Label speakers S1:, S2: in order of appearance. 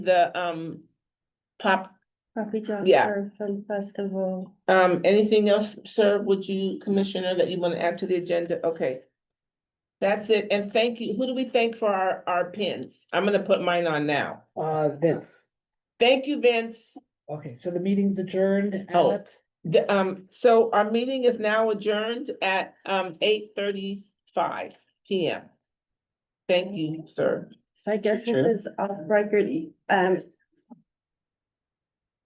S1: the, um, pop,
S2: Papi John
S1: Yeah.
S2: Film Festival.
S1: um, anything else, sir, would you, Commissioner, that you want to add to the agenda? Okay. That's it, and thank you. Who do we thank for our, our pins? I'm gonna put mine on now.
S3: Uh, Vince,
S1: Thank you, Vince.
S3: okay, so the meeting's adjourned
S1: Oh.
S3: at,
S1: The, um, so our meeting is now adjourned at, um, eight thirty-five PM. Thank you, sir.
S2: So I guess
S3: Sure.
S2: this is off record. Um,